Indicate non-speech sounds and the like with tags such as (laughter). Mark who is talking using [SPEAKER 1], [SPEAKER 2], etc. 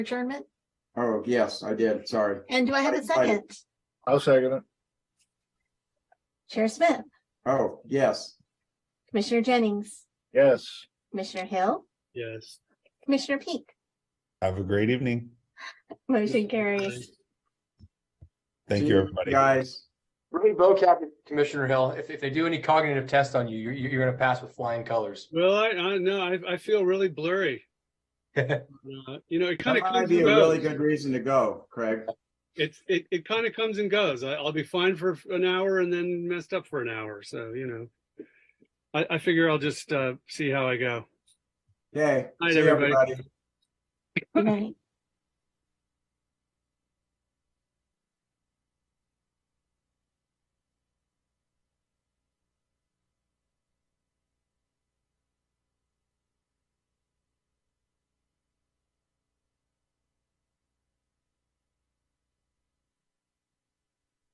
[SPEAKER 1] adjournment?
[SPEAKER 2] Oh, yes, I did. Sorry.
[SPEAKER 1] And do I have a second?
[SPEAKER 3] I'll second it.
[SPEAKER 1] Chair Smith,
[SPEAKER 2] Oh, yes.
[SPEAKER 1] Commissioner Jennings,
[SPEAKER 3] Yes.
[SPEAKER 1] Commissioner Hill,
[SPEAKER 4] Yes.
[SPEAKER 1] Commissioner Peak,
[SPEAKER 5] Have a great evening.
[SPEAKER 1] motion carries.
[SPEAKER 5] Thank
[SPEAKER 2] See
[SPEAKER 5] you, everybody.
[SPEAKER 2] Guys,
[SPEAKER 6] Really vocab, Commissioner Hill, if, if they do any cognitive test on you, you're, you're gonna pass with flying colors. (laughs)
[SPEAKER 4] Well, I, I know, I, I feel really blurry. Uh, You know, it kind
[SPEAKER 2] that
[SPEAKER 4] of
[SPEAKER 2] might
[SPEAKER 4] comes
[SPEAKER 2] be
[SPEAKER 4] and
[SPEAKER 2] a really
[SPEAKER 4] goes.
[SPEAKER 2] good reason to go, Craig.
[SPEAKER 4] It's, it, it kind of comes and goes. I, I'll be fine for an hour and then messed up for an hour. So, you know. I, I figure I'll just, uh, see how I go.
[SPEAKER 2] Okay.
[SPEAKER 4] Night,
[SPEAKER 2] see
[SPEAKER 4] everybody.
[SPEAKER 2] everybody.
[SPEAKER 1] Good night.